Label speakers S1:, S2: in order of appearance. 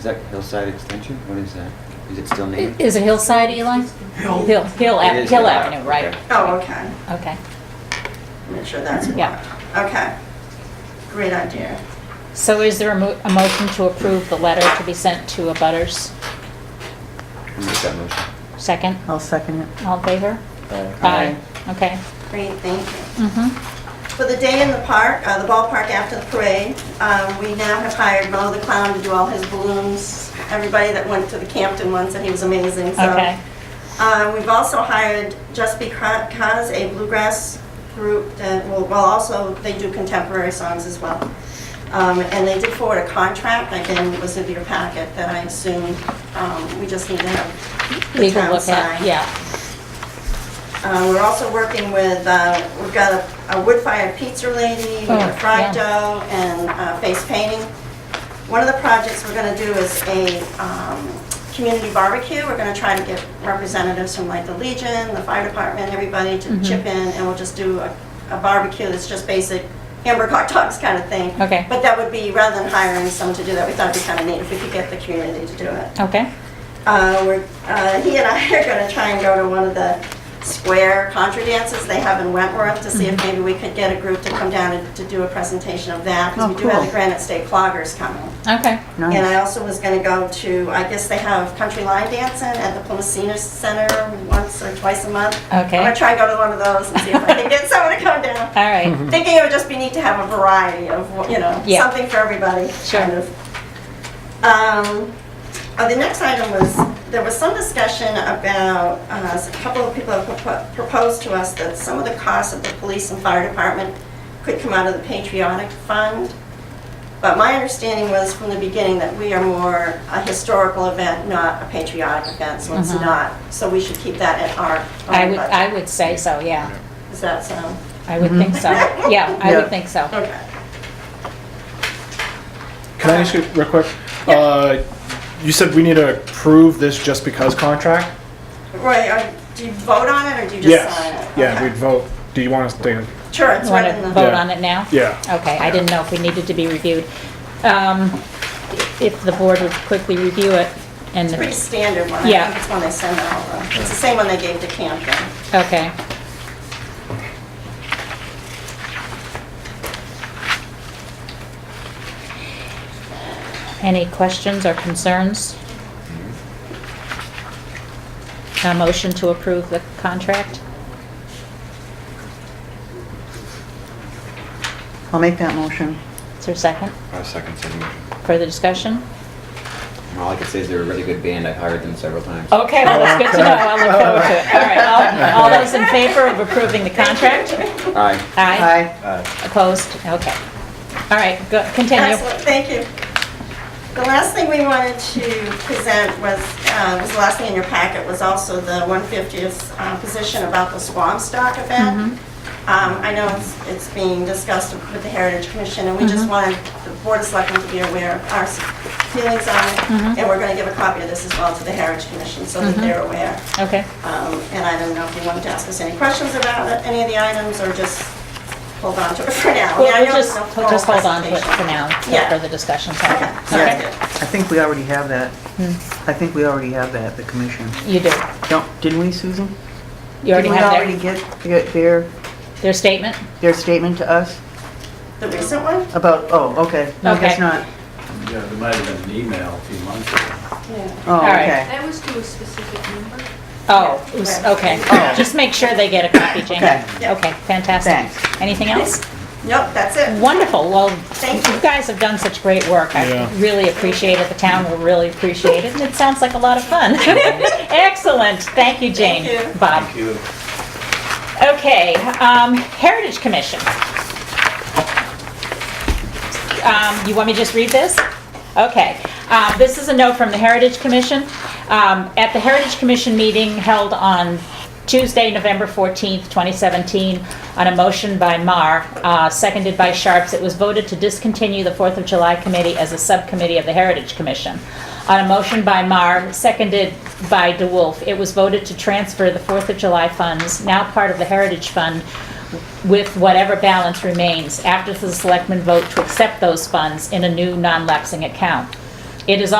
S1: that Hillside Extension? What is that? Is it still named?
S2: Is it Hillside, Eli?
S3: Hill.
S2: Hill, Hill,
S1: It
S2: Ave-
S1: is
S2: Hill
S1: Hill
S2: Avenue,
S1: Ave,
S2: right.
S1: okay.
S3: Oh, okay.
S2: Okay.
S3: Make sure that's.
S2: Yeah.
S3: Okay. Great idea.
S2: So is there a mo- a motion to approve the letter to be sent to abutters?
S1: I'll Make that motion.
S2: Second?
S4: I'll second it.
S2: All in favor?
S1: Aye.
S2: Okay.
S3: Great, thank you.
S2: Mm-hmm.
S3: For the day in the park, uh, the ballpark after the parade, uh, we now have hired Mo the Clown to do all his balloons. Everybody that went to the Campton one said he was amazing, so.
S2: Okay.
S3: Uh, We've also hired Just Because, a bluegrass group that will, well, also, they do contemporary songs as well. Um, And they did forward a contract, again, it was in your packet, that I assume um, we just need to have the
S2: Legal
S3: town
S2: look at,
S3: sign.
S2: yeah.
S3: Uh, We're also working with, uh, we've got a- a wood fire pizza lady, we've got
S2: Oh,
S3: fried
S2: yeah.
S3: dough, and uh, face painting. One of the projects we're going to do is a um, community barbecue. We're going to try to get representatives from like the Legion, the fire department, everybody
S2: Mm-hmm.
S3: to chip in, and we'll just do a a barbecue that's just basic hamburger hot dogs kind of thing.
S2: Okay.
S3: But that would be, rather than hiring someone to do that, we thought it'd be kind of neat if we could get the community to do it.
S2: Okay.
S3: Uh, we're, uh, he and I are gonna try and go to one of the square contra dances they have in Wentworth to see if
S4: Mm-hmm.
S3: maybe we could get a group to come down and to do a presentation of that. 'cause
S4: Oh,
S3: we do have
S4: cool.
S3: the Granite State Cloggers coming.
S2: Okay.
S3: And I
S4: Nice.
S3: also was gonna go to, I guess they have country line dancing at the Plymouth Senior Center once or twice a month.
S2: Okay.
S3: I'm gonna try and go to one of those and see if I can get someone to come down.
S2: All
S1: Mm-hmm.
S2: right.
S3: Thinking it would just be neat to have a variety of, you know,
S2: Yeah.
S3: something for everybody.
S2: Sure.
S3: kind of. Um, uh, the next item was, there was some discussion about, uh, a couple of people have propo- proposed to us that some of the costs of the police and fire department could come out of the patriotic fund. But my understanding was from the beginning that we are more a historical event, not a patriotic event, so it's not. So we should keep that at our
S2: Mm-hmm. I
S3: own
S2: would, I
S3: budget.
S2: would say so, yeah.
S3: Does that sound?
S2: I would think so. Yeah, I
S4: Yeah.
S2: would think so.
S3: Okay.
S5: Can I ask you real quick? Uh, You said we need to approve this just because contract?
S3: Right, uh, do you vote on it or do you just sign it?
S5: Yes, yeah, we'd vote. Do you want us to,
S3: Okay. Sure, it's
S2: Want
S3: right
S2: to
S3: in the,
S2: vote on it now?
S5: yeah.
S2: Okay, I didn't know if we needed to be reviewed. Um, If the board would quickly review it and,
S3: pretty standard one, I
S2: Yeah.
S3: think it's one they send out, though. It's the same one they gave to Camden.
S2: okay. Any questions or concerns? A motion to approve the contract?
S4: I'll make that motion.
S2: Is there a second?
S1: I'll second said motion.
S2: Further discussion?
S1: And All I can say is they're a really good band. I've hired them several times.
S2: Okay, well, that's good to know. I look forward to it. All right, all all those in favor of approving the contract?
S1: Aye.
S2: Aye.
S4: Aye.
S2: Opposed? Okay. All right, go, continue.
S3: Excellent, thank you. The last thing we wanted to present was, uh, was the last thing in your packet was also the 150th uh, position about the Swamp Stock event. Um, I know it's, it's being discussed with the Heritage Commission, and we just wanted the Board of Selectmen to be aware of our s- feelings on it, and we're going to give a copy of this as well to the Heritage Commission so that they're aware.
S2: Okay,
S3: Um, And I don't know if you wanted to ask us any questions about it, any of the items, or just hold on to it for now. I mean,
S2: well,
S3: I
S2: we'll
S3: know it's
S2: just,
S3: no
S2: we'll just
S3: formal
S2: hold on to it for
S3: presentation.
S2: now, till
S3: Yeah.
S2: further discussion's
S3: Okay,
S2: happening.
S3: sounds good.
S4: I think we already have that.
S2: Hmm.
S4: I think we already have that, the commission.
S2: You do.
S4: Don't, didn't we, Susan?
S2: You already
S4: Didn't we already
S2: have
S4: get their- their,
S2: their, their statement?
S4: their statement to us
S3: The recent one?
S4: about, oh, okay. No, I
S2: Okay.
S4: guess not.
S6: Yeah, there might have been an email a few months ago.
S3: Yeah.
S4: Oh,
S2: right.
S4: okay.
S7: That was to a specific number.
S2: Oh, it was- okay. Just make sure they get a copy, Jane.
S4: Oh. Okay.
S3: Yeah.
S2: Okay, fantastic.
S4: Thanks.
S2: Anything else?
S3: Nope, that's it.
S2: Wonderful, well, you
S3: Thank you.
S2: guys have done such great work. I
S5: Yeah.
S2: really appreciate it, the town will really appreciate it, and it sounds like a lot of fun. Excellent, thank you, Jane.
S3: Thank you.
S2: Bob.
S6: Thank you.
S2: Okay, um, Heritage Commission. Um, you want me to just read this? Okay, um, this is a note from the Heritage Commission. Um, at the Heritage Commission meeting held on Tuesday, November 14th, 2017, on a motion by Mar, uh, seconded by Sharps, it was voted to discontinue the Fourth of July Committee as a subcommittee of the Heritage Commission. On a motion by Marr, seconded by DeWolf, it was voted to transfer the Fourth of July funds, now part of the Heritage Fund, with whatever balance remains after the selectmen vote to accept those funds in a new non-lapsing account. It is